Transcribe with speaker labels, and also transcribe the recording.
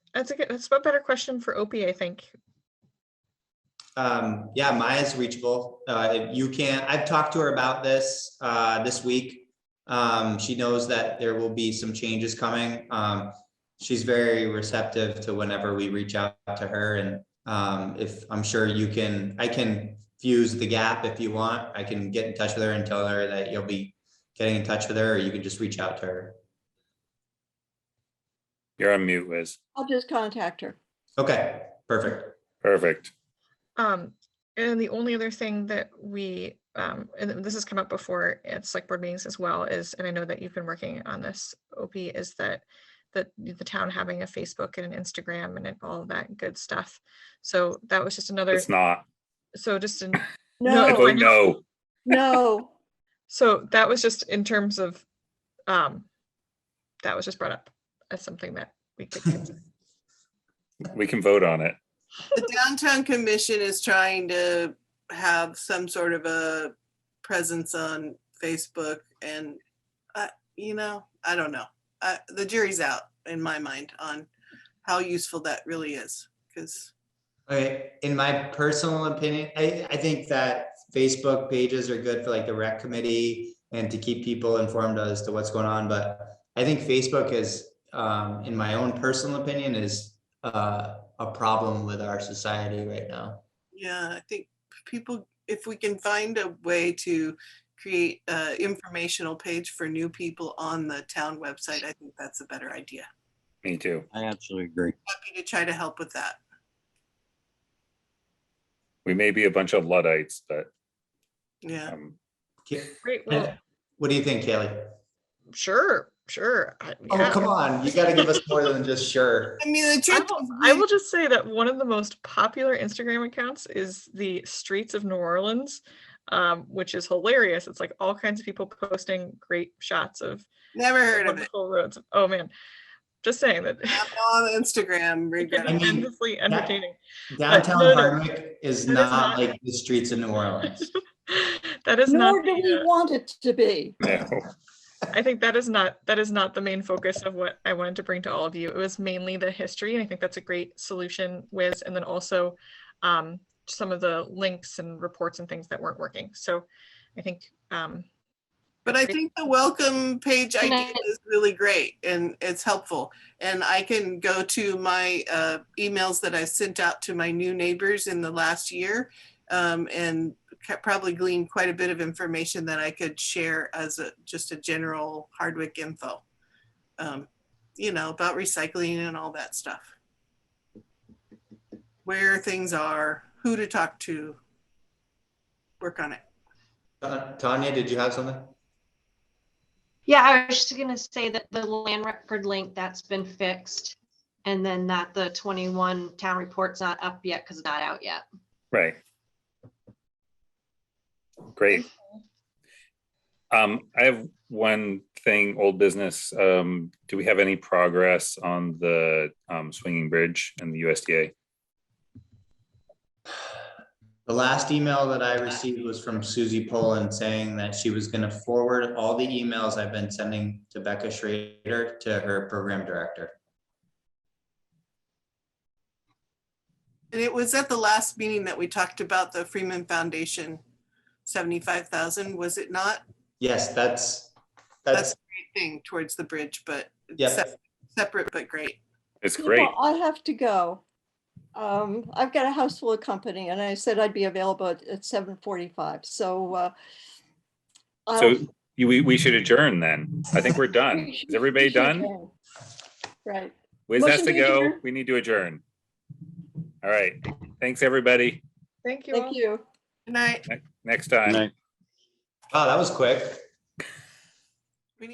Speaker 1: that's a good, that's a better question for Opie, I think.
Speaker 2: Um, yeah, Maya's reachable. Uh, if you can, I've talked to her about this, uh, this week. Um, she knows that there will be some changes coming. Um, she's very receptive to whenever we reach out to her and, um, if, I'm sure you can, I can fuse the gap if you want. I can get in touch with her and tell her that you'll be getting in touch with her, or you can just reach out to her.
Speaker 3: You're on mute, Liz.
Speaker 4: I'll just contact her.
Speaker 2: Okay, perfect.
Speaker 3: Perfect.
Speaker 1: Um, and the only other thing that we, um, and this has come up before at select board meetings as well is, and I know that you've been working on this, Opie, is that that the town having a Facebook and an Instagram and all of that good stuff. So that was just another,
Speaker 3: It's not. Oh,
Speaker 1: so just in,
Speaker 5: Oh,
Speaker 1: No,
Speaker 3: I
Speaker 1: it's
Speaker 4: No,
Speaker 3: vote
Speaker 1: fine.
Speaker 3: no.
Speaker 4: no,
Speaker 1: so that was just in terms of, um, that was just brought up as something that we could consider.
Speaker 3: We can vote on it.
Speaker 5: The downtown commission is trying to have some sort of a presence on Facebook and, uh, you know, I don't know. Uh, the jury's out in my mind on how useful that really is, because
Speaker 2: Okay, in my personal opinion, I, I think that Facebook pages are good for like the rec committee and to keep people informed as to what's going on, but I think Facebook is, um, in my own personal opinion, is uh, a problem with our society right now.
Speaker 5: yeah, I think people, if we can find a way to create a informational page for new people on the town website, I think that's a better idea.
Speaker 3: Me too.
Speaker 6: I absolutely agree.
Speaker 5: Happy to try to help with that.
Speaker 3: We may be a bunch of Luddites, but
Speaker 5: Yeah.
Speaker 3: um,
Speaker 2: Ki-
Speaker 1: Great, well,
Speaker 2: What do you think, Kaylee?
Speaker 1: sure, sure. I-
Speaker 2: Oh,
Speaker 1: yeah.
Speaker 2: come on, you gotta give us more than just sure.
Speaker 5: I mean, the
Speaker 1: I
Speaker 5: truth.
Speaker 1: will,
Speaker 5: is
Speaker 1: I
Speaker 5: we-
Speaker 1: will just say that one of the most popular Instagram accounts is the Streets of New Orleans, um, which is hilarious. It's like all kinds of people posting great shots of
Speaker 5: Never heard of it.
Speaker 1: wonderful roads. Oh man, just saying that
Speaker 5: I'm on Instagram.
Speaker 1: it's
Speaker 5: regret.
Speaker 2: I mean,
Speaker 1: endlessly entertaining. no,
Speaker 2: Downtown
Speaker 1: no.
Speaker 2: Hardwick is
Speaker 1: That is
Speaker 2: not
Speaker 1: not-
Speaker 2: like the streets of New Orleans.
Speaker 1: that is
Speaker 4: nor
Speaker 1: not.
Speaker 4: do we
Speaker 1: the, uh,
Speaker 4: want it to be.
Speaker 3: no.
Speaker 1: I think that is not that is not the main focus of what I wanted to bring to all of you. It was mainly the history, and I think that's a great solution, Wiz, and then also um, some of the links and reports and things that weren't working. So I think um,
Speaker 5: But I think the welcome page
Speaker 7: Can
Speaker 5: idea is really great and it's helpful. And I can go to my uh, emails that I sent out to my new neighbors in the last year um, and ca- probably glean quite a bit of information that I could share as a, just a general Hardwick info. Um, you know, about recycling and all that stuff. Where things are, who to talk to. Work on it.
Speaker 2: Uh, Tanya, did you have something?
Speaker 7: Yeah, I was just gonna say that the land record link, that's been fixed. And then that the twenty-one town report's not up yet, because not out yet.
Speaker 3: Right. Great. Um, I have one thing, old business. Um, do we have any progress on the um, swinging bridge and the USDA?
Speaker 2: The last email that I received was from Susie Poland saying that she was gonna forward all the emails I've been sending to Becca Schrader to her program director.
Speaker 5: And it was at the last meeting that we talked about the Freeman Foundation, seventy-five thousand, was it not?
Speaker 2: Yes, that's, that's,
Speaker 5: Great Thing towards the bridge, but it's
Speaker 2: Yep.
Speaker 5: sep- separate but great.
Speaker 3: It's
Speaker 4: You know,
Speaker 3: great.
Speaker 4: I have to go. Um, I've got a house full of company and I said I'd be available at- at seven forty-five, so, uh. um,
Speaker 3: So
Speaker 4: I'll-
Speaker 3: you, we, we should adjourn then. I think we're done.
Speaker 4: we should-
Speaker 3: Is
Speaker 4: we
Speaker 3: everybody
Speaker 4: should
Speaker 3: done?
Speaker 4: adjourn. Right.
Speaker 3: Wiz has
Speaker 4: Motion
Speaker 3: to
Speaker 4: to
Speaker 3: go.
Speaker 4: adjourn.
Speaker 3: We need to adjourn. All right. Thanks, everybody.
Speaker 1: thank you. all.
Speaker 4: Thank you.
Speaker 5: And I,
Speaker 3: Next time.
Speaker 6: Night.
Speaker 2: wow, that was quick.